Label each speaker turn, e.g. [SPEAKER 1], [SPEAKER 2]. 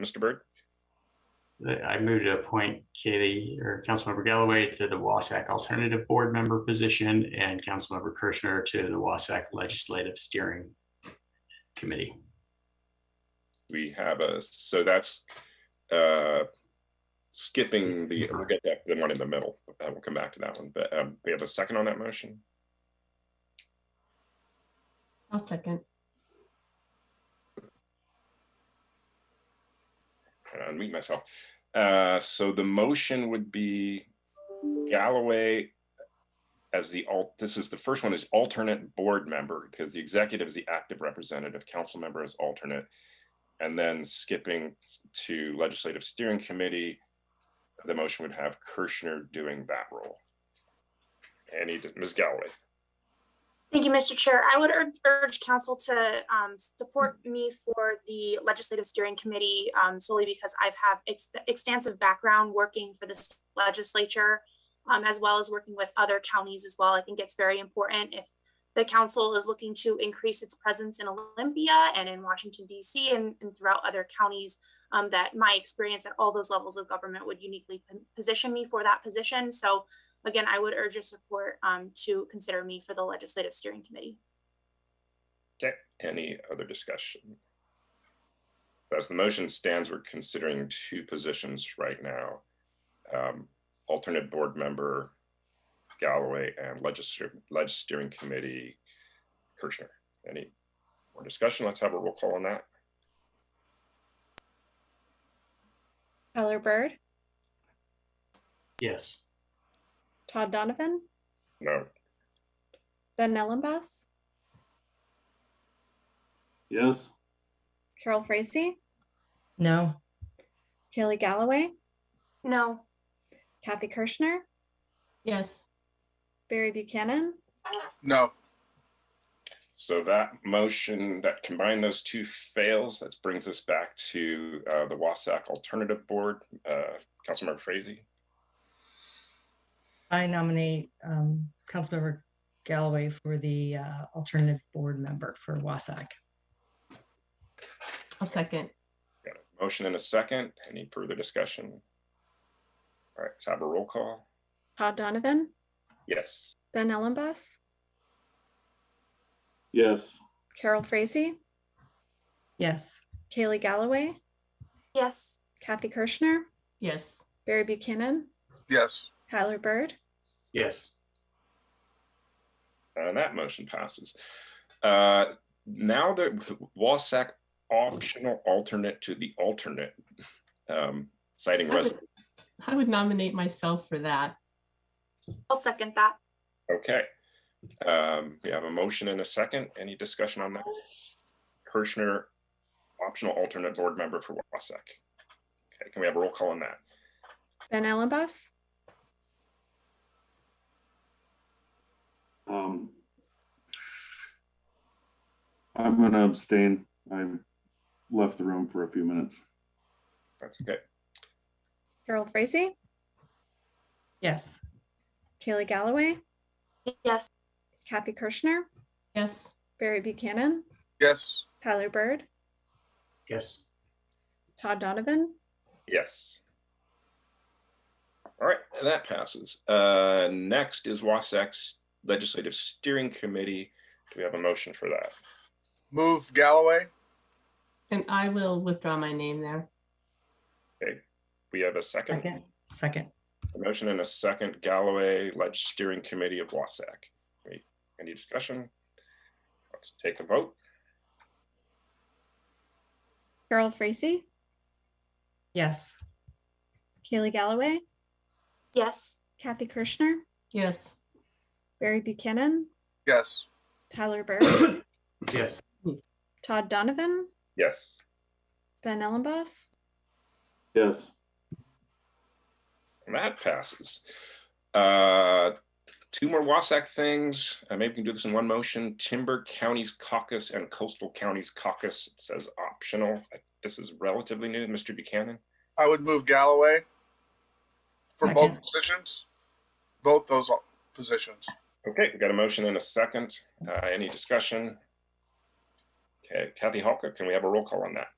[SPEAKER 1] Mr. Byrd?
[SPEAKER 2] I move to appoint Katie or Councilmember Galloway to the Wasac Alternative Board Member position and Councilmember Kirschner to the Wasac Legislative Steering Committee.
[SPEAKER 1] We have a, so that's uh, skipping the, we'll get that, the one in the middle. Uh, We'll come back to that one, but um, we have a second on that motion.
[SPEAKER 3] I'll second.
[SPEAKER 1] Trying to unmute myself. Uh, So the motion would be Galloway as the alt, this is, the first one is alternate board member because the executive is the active representative, council member is alternate. And then skipping to legislative steering committee, the motion would have Kirschner doing that role. Any, Ms. Galloway,
[SPEAKER 4] Thank you, Mr. Chair. I would urge, urge council to um, support me for the Legislative Steering Committee um, solely because I've have ex- extensive background working for this legislature um, as well as working with other counties as well. I think it's very important if the council is looking to increase its presence in Olympia and in Washington DC and, and throughout other counties um, that my experience at all those levels of government would uniquely p- position me for that position. So again, I would urge your support um, to consider me for the Legislative Steering Committee.
[SPEAKER 1] any other discussion? As the motion stands, we're considering two positions right now. um, Alternate board member Galloway and legislative, leg steering committee Kirchner. Any more discussion? Let's have a roll call on that.
[SPEAKER 5] Tyler Bird,
[SPEAKER 2] Yes.
[SPEAKER 5] Todd Donovan,
[SPEAKER 1] No,
[SPEAKER 5] Ben Ellenboss,
[SPEAKER 6] Yes,
[SPEAKER 5] Carol Frazee,
[SPEAKER 3] No,
[SPEAKER 5] Kaylee Galloway,
[SPEAKER 4] No.
[SPEAKER 5] Kathy Kirschner,
[SPEAKER 3] yes,
[SPEAKER 5] Barry Buchanan,
[SPEAKER 7] No,
[SPEAKER 1] so that motion that combined those two fails, that brings us back to uh, the WASAC Alternative Board. Uh, Councilmember Frazee,
[SPEAKER 3] I nominate um, Councilmember Galloway for the uh, alternative board member for Wasac. I'll second.
[SPEAKER 1] got a motion and a second. Any further discussion? All right, let's have a roll call.
[SPEAKER 5] Todd Donovan,
[SPEAKER 1] Yes.
[SPEAKER 5] Ben Ellenboss,
[SPEAKER 6] yes,
[SPEAKER 5] Carol Frazee,
[SPEAKER 3] Yes.
[SPEAKER 5] Kaylee Galloway,
[SPEAKER 4] Yes.
[SPEAKER 5] Kathy Kirschner,
[SPEAKER 3] Yes.
[SPEAKER 5] Barry Buchanan,
[SPEAKER 7] yes,
[SPEAKER 5] Tyler Bird,
[SPEAKER 2] Yes.
[SPEAKER 1] And uh, that motion passes. Uh, Now that WASAC optional alternate to the alternate, um, citing
[SPEAKER 8] I would-
[SPEAKER 1] resident.
[SPEAKER 8] I would nominate myself for that.
[SPEAKER 4] I'll second that.
[SPEAKER 1] Okay. Um, We have a motion and a second. Any discussion on that? Kirschner, optional alternate board member for WASAC. Okay, can we have a roll call on that?
[SPEAKER 5] Ben Ellenboss,
[SPEAKER 6] um. I'm gonna abstain. I left the room for a few minutes.
[SPEAKER 1] That's okay.
[SPEAKER 5] Carol Frazee,
[SPEAKER 3] Yes.
[SPEAKER 5] Kaylee Galloway,
[SPEAKER 4] Yes.
[SPEAKER 5] Kathy Kirschner,
[SPEAKER 8] Yes,
[SPEAKER 5] Barry Buchanan,
[SPEAKER 7] yes,
[SPEAKER 5] Tyler Bird,
[SPEAKER 2] Yes.
[SPEAKER 5] Todd Donovan,
[SPEAKER 1] Yes. All right, and that passes. Uh, Next is WASAC's Legislative Steering Committee. Do we have a motion for that?
[SPEAKER 7] move Galloway,
[SPEAKER 8] and I will withdraw my name there.
[SPEAKER 1] We have a second,
[SPEAKER 3] Second. Second.
[SPEAKER 1] A motion and a second Galloway Ledge Steering Committee of Wasac. Any- Any discussion? Let's take a vote.
[SPEAKER 5] Carol Frazee,
[SPEAKER 3] Yes.
[SPEAKER 5] Kaylee Galloway,
[SPEAKER 4] Yes.
[SPEAKER 5] Kathy Kirschner,
[SPEAKER 8] Yes,
[SPEAKER 5] Barry Buchanan,
[SPEAKER 7] yes,
[SPEAKER 5] Tyler Bird,
[SPEAKER 2] Yes.
[SPEAKER 5] Todd Donovan,
[SPEAKER 1] Yes.
[SPEAKER 5] Ben Ellenboss,
[SPEAKER 6] Yes,
[SPEAKER 1] And that passes. Uh, Two more Wasac things. Uh, Maybe we can do this in one motion. Timber Counties Caucus and Coastal Counties Caucus. It says optional. This is relatively new. Mr. Buchanan?
[SPEAKER 7] I would move Galloway for
[SPEAKER 3] Second.
[SPEAKER 7] both positions, both those positions.
[SPEAKER 1] Okay, we got a motion and a second. Uh, Any discussion? Okay, Kathy Halka, can we have a roll call on that?